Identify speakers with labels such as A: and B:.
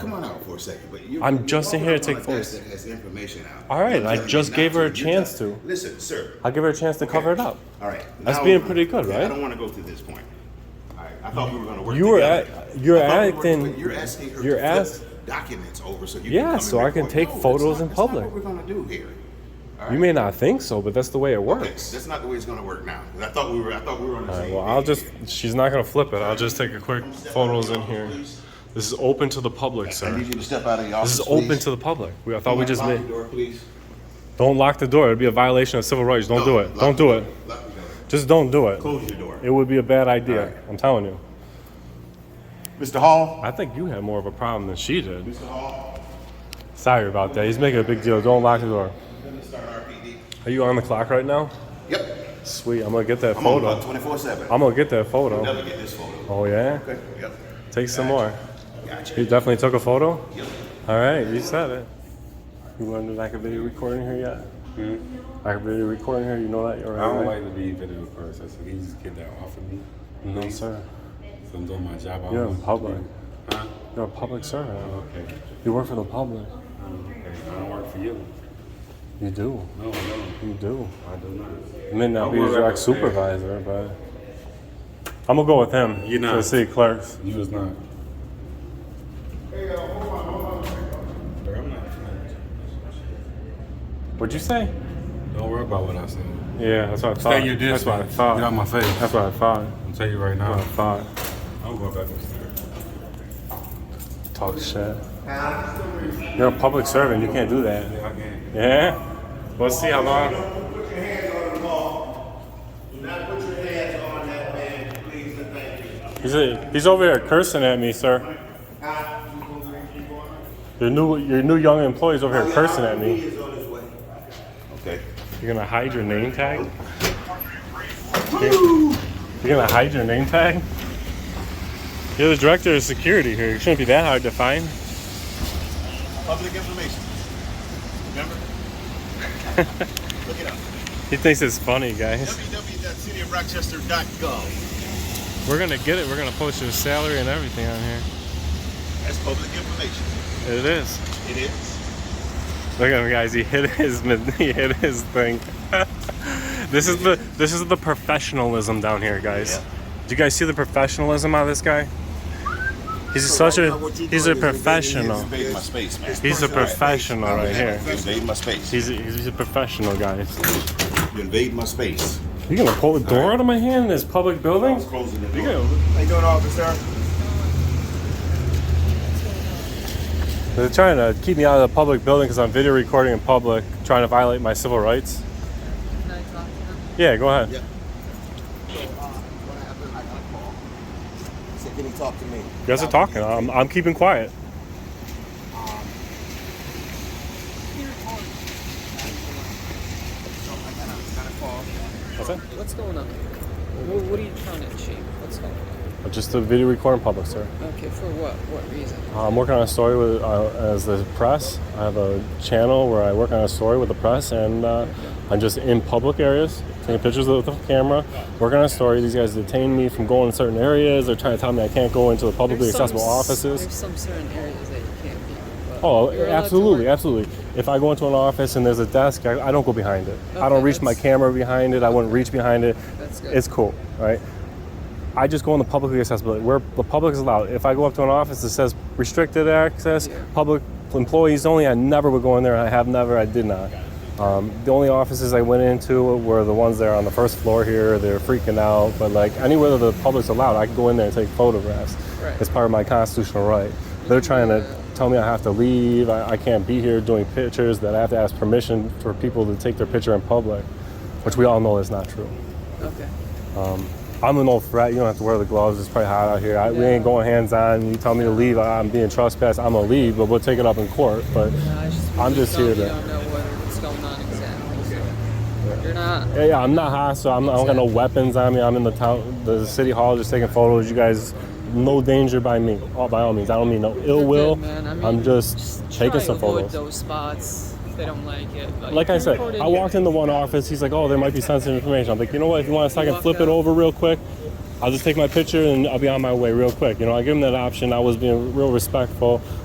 A: for a second, but you.
B: I'm
A: you
B: just in
A: walking
B: here
A: around
B: to take
A: like this
B: photos.
A: that Has information out.
B: All right,
A: You're
B: I
A: telling me
B: just
A: not
B: gave her a
A: You
B: chance
A: tell-
B: to.
A: Listen, sir.
B: I'll give her a chance to
A: Okay.
B: cover it up.
A: All right.
B: That's
A: now-
B: being pretty good,
A: yeah,
B: right?
A: I don't want to go to this point. All right. I thought we were going to work.
B: You were
A: together.
B: act- you're
A: I thought we were
B: acting-
A: working- You're asking her.
B: you're
A: to
B: ask-
A: flip documents over so you.
B: Yeah,
A: Can come
B: so
A: and
B: I can
A: record.
B: take
A: No, that's
B: photos
A: not-
B: in
A: that's not
B: public.
A: what we're going to do here. All
B: You
A: right?
B: may not think so, but that's the way it
A: Okay,
B: works.
A: That's not the way it's going to work now. 'cause I thought we were. I thought we were on the
B: All
A: same.
B: right, well, I'll
A: page
B: just.
A: here.
B: She's not gonna flip it. I'll just take a quick photos in here. This is open to the public,
A: I
B: sir.
A: need you to step out of your office.
B: This is open
A: please.
B: to the public. We, I thought we just
A: Lock
B: made.
A: the door, please.
B: Don't lock the door. It'd be a violation of civil rights. Don't
A: No,
B: do it.
A: lock
B: Don't
A: the
B: do
A: door.
B: it.
A: Lock the door.
B: Just don't do it.
A: Close your door.
B: It would be a bad idea.
A: Alright.
B: I'm telling you.
A: Mr. Hall.
B: I think you had more of a problem than she did.
A: Mr. Hall.
B: Sorry about that. He's making a big deal. Don't lock the door.
A: I'm going to start RPD.
B: Are you on the clock right now?
A: Yep.
B: Sweet. I'm gonna get that
A: I'm on
B: photo.
A: about 24 7.
B: I'm gonna get that photo.
A: Never get this photo.
B: Oh yeah.
A: Okay. Yep.
B: Take some more.
A: Gotcha.
B: You definitely took a photo.
A: Yep.
B: All right, you said it. You learned that I could video recording here yet? I could video recording here. You know that you're
C: I don't
B: right.
C: like to be video first. That's what he just get that off of me.
B: No sir.
C: So I'm doing my job. I
B: You're
C: want
B: in
C: to
B: public.
C: do. Um, Huh?
B: You're a public servant.
C: Okay.
B: You work for the public.
C: Okay. I don't work for you.
B: You do.
C: No, no.
B: You do.
C: I do not.
B: You may not
C: I
B: be a
C: work
B: direct
C: at the fair.
B: supervisor, but I'm gonna go with him.
C: You're
B: For the
C: not.
B: city clerks.
C: You was not. Bro, I'm not friends.
B: What'd you say?
C: Don't worry about what I said.
B: Yeah, that's what I thought.
C: Stay your distance.
B: That's what I
C: Get out
B: thought.
C: my face.
B: That's what I thought.
C: I'm telling you right
B: That's what I
C: now.
B: thought.
C: I'm going back upstairs.
B: Talk shit. You're a public servant. You can't do that.
C: Yeah, I can.
B: Yeah. Let's see how long.
D: Don't put your hands on the wall. Do not put your hands on that man, please and thank you.
B: He's, he's over here cursing at me, sir.
D: Huh? You gonna keep going?
B: Your new your new young employee's over here cursing at
D: He
B: me.
D: is on his way.
A: Okay.
B: You're gonna hide your name tag? You're gonna hide your name tag? You're the director of security here. It shouldn't be that hard to find.
A: Public information. Remember? Look it up.
B: He thinks it's funny, guys.
A: www.cityofrochester.gov.
B: We're gonna get it. We're gonna post your salary and everything on here.
A: That's public information.
B: It is.
A: It is.
B: Look at him, guys. He hit his he hit his thing. this is the this is the professionalism down here, guys. Do you guys see the professionalism out of this guy? He's such a he's a professional.
A: Invade my space, man.
B: He's a professional right here.
A: You invade my space.
B: He's a, he's a professional, guys.
A: You invade my space.
B: You gonna pull the door out of my hand in this public building?
A: Closing the
B: You
A: door.
B: gonna-
D: How you doing, officer?
B: They're trying to keep me out of the public building because I'm video recording in public, trying to violate my civil rights.
E: Can I talk to them?
B: Yeah, go ahead.
A: Yeah.
D: What happened? I got called. He said, can he talk to me?
B: You guys are talking. I'm, I'm keeping quiet. What's that?
E: What's going on? What, what are you trying to achieve? What's going on?
B: Just a video recording public, sir.
E: Okay, for what? What reason?
B: Uh, I'm working on a story with uh, as the press. I have a channel where I work on a story with the press, and uh, I'm just in public areas taking pictures with the camera, working on a story. These guys detain me from going in certain areas. They're trying to tell me I can't go into the publicly
E: There's some
B: accessible
E: s-
B: offices.
E: There's some certain areas that you can't be. but
B: Oh,
E: you're allowed to
B: absolutely,
E: work.
B: absolutely. If I go into an office and there's a desk, I, I don't go behind it. I don't
E: Okay,
B: reach my
E: that's-
B: camera behind it. I wouldn't reach behind it.
E: That's good.
B: It's cool, right? I just go in the publicly accessible where the public is allowed. If I go up to an office that says restricted access,
E: Yeah.
B: public employees only, I never would go in there. I have never. I did not. Um, the only offices I went into were the ones that are on the first floor here. They're freaking out, but like anywhere that the public's allowed, I can go in there and take photographs.
E: Right.
B: It's part of my constitutional right. They're trying to tell me I have to leave. I, I can't be here doing pictures. That I have to ask permission for people to take their picture in public, which we all know is not true.
E: Okay.
B: I'm an old frat. You don't have to wear the gloves. It's pretty hot out here. I, We
E: Yeah.
B: ain't going hands on. You tell me to leave. I- I'm being trespassed. I'm gonna leave, but we'll take it up in court. But
E: No, I just,
B: I'm just here
E: You
B: to-
E: don't know what, what's going on exactly. So You're not.
B: yeah, yeah, I'm not hostile. I'm not, I don't got no weapons on me. I'm in the town, the city hall, just taking photos. You guys, no danger by me. All by all means, I don't mean no ill
E: You're
B: will.
E: Good, man. I mean,
B: I'm just,
E: try
B: taking
E: to
B: some
E: avoid
B: photos.
E: those spots if they don't like it.
B: Like I
E: you're
B: said,
E: recorded,
B: I walked into one office. He's like, "Oh, there might be sensitive information." I'm like, "You know what? If you want a second,
E: Walk
B: flip it
E: out.
B: over real quick. I'll just take my picture and I'll be on my way real quick." You know, I give him that option. I was being real respectful.